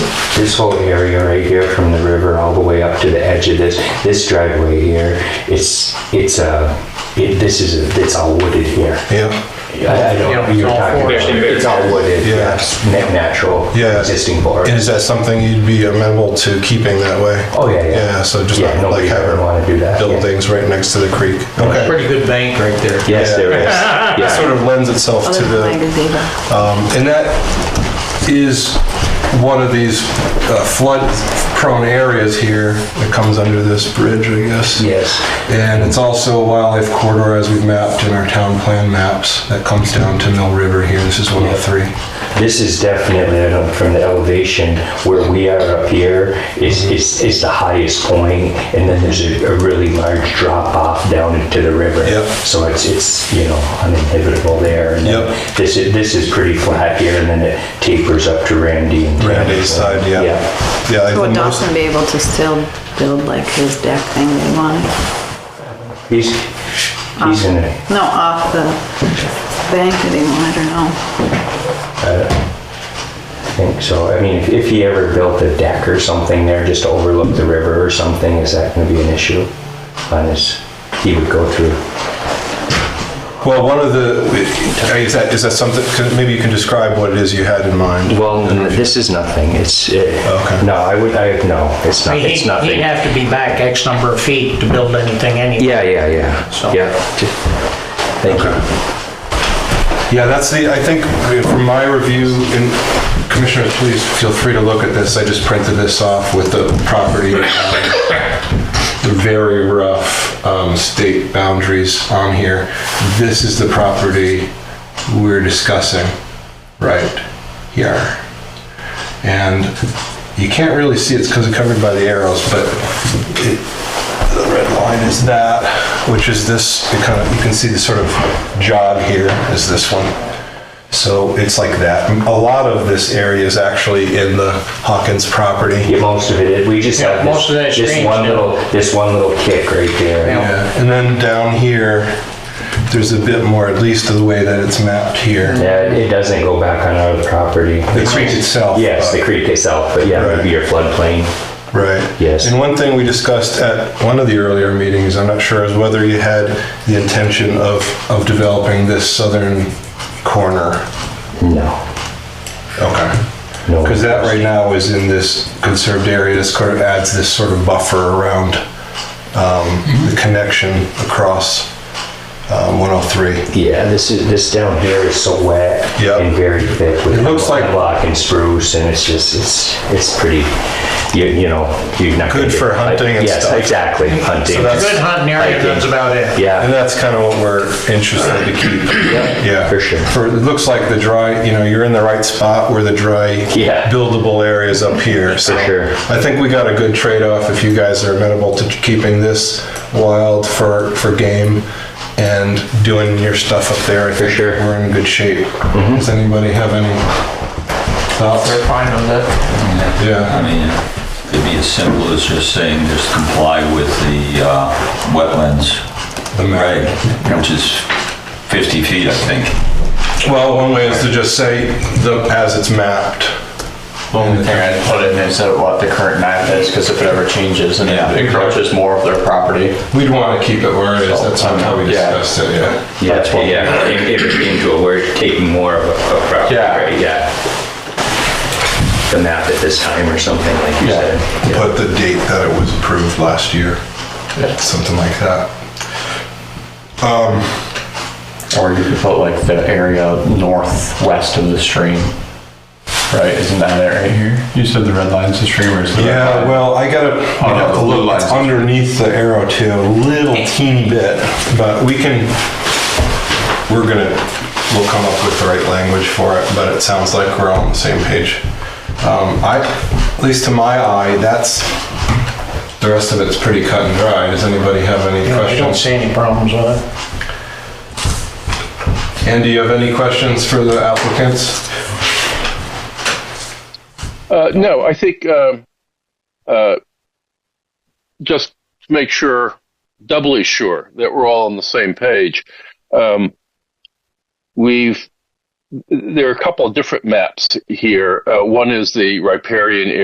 this whole area right here from the river all the way up to the edge of this, this driveway here, it's, it's a, it, this is, a- it's all wooded here. Yeah, I I Yeah, don't, it's you're all talking about, forested. it's all wooded, Yeah. yes, na- natural, Yeah. existing forest. and is that something you'd be amenable to keeping that way? Oh, yeah, yeah. Yeah, so just Yeah, not like nobody having would wanna do that, yeah. buildings right next to the creek. Okay. Pretty good bank right there. Yes, there is, That yeah. sort of lends itself to the. And that is one of these uh, flood-prone areas here that comes under this bridge, I guess. Yes, And it's also a wildlife corridor as we've mapped in our town plan maps that comes down to Mill River here. This is 103. this is definitely, I don't, from the elevation where we are up here is, is, is the highest point, and then there's a, a really large drop off down into the river. Yep. So it's, it's, you know, uninhibitable there. and then Yep. This is, this is pretty flat here, and then it tapers up to Randy and. Randy's side, yeah. Yeah, I So would think most- Dawson be able to still build like his deck thing that he wanted? He's, he's in a, No, off the bank that he wanted or no? I think so. I mean, if, if he ever built a deck or something there just to overlook the river or something, is that going to be an issue? On his, he would go through. well, one of the, is that, is that something, could- maybe you can describe what it is you had in mind? Well, this is nothing. It's it, Okay. no. I would. I no. It's I not. mean, It's he'd- He'd nothing. have to be back X number of feet to build anything anyway. Yeah, yeah, yeah. So- Yeah. ju- Thank you. Yeah, that's the, I think, from my review, and commissioners, please feel free to look at this, I just printed this off with the property, um, the very rough um, state boundaries on here. This is the property we're discussing right here. And you can't really see it because it's covered by the arrows, but it, the red line is that, which is this, it kind of, you can see the sort of jog here is this one. So it's like that. A lot of this area is actually in the Hawkins property. Yeah, most of it. is- We just Yeah, have this, most of that is this drainage one now. little this one little kick right there. Yeah. Yeah, And then down here, there's a bit more, at least of the way that it's mapped here. Yeah, it doesn't go back on our property. The creek itself. Yes, uh, the creek itself, but yeah, it would be your floodplain. Right. Yes. And one thing we discussed at one of the earlier meetings, I'm not sure, is whether you had the intention of, of developing this southern corner. No, Okay. no. Because that right now is in this conserved area, this sort of adds this sort of buffer around um, the connection across um, 103. Yeah, this is this down here is so wet Yeah. and very thick with It looks like- hemlock and spruce, and it's just it's it's pretty. You, you know, you're not gonna Good get- for hunting and yes, stuff. exactly, hunting. So that's- Good hunting area, that's about it. And yeah, that's kind of what we're interested to keep. Yeah. for sure. For, it looks like the dry, you know, you're in the right spot where the dry Yeah. buildable area is up here. So sure. I think we got a good trade-off if you guys are amenable to keeping this wild for, for game and doing your stuff up there. I think sure. Mm-hmm. We're in good shape. Does anybody have any thoughts? They're fine on that. Yeah. I mean, it could be as simple as just saying, just comply with the uh, wetlands The map. reg, which is 50 feet, I think. Well, one way is to just say the, as it's mapped. Only thing I'd put in is that what the current map is, because if it ever changes and Yeah. it encroaches more of their property. We'd want to keep it where it is. That's how we Yeah. discussed it, yeah. Yeah, yeah. If it came to a word, taking more of a, a property, Yeah. right? Yeah. The map at this time or something like you Yeah. said. Yeah. Put the date that it was approved last year, something like that. Or you could put like the area northwest of the stream. Right, isn't that area here? You said the red line's the stream or is the Yeah, well, I gotta, I'd have to Oh, the blue look lines. It's underneath the arrow too, a little teeny bit, but we can, we're gonna, we'll come up with the right language for it, but it sounds like we're all on the same page. Um, I, at least to my eye, that's, the rest of it's pretty cut and dry. Does anybody have any You know, I don't questions? see any problems with it. And do you have any questions for the applicants? Uh, no, I think um, uh, just to make sure, doubly sure, that we're all on the same page. Um, we've there are a couple of different maps here. Uh, one is the riparian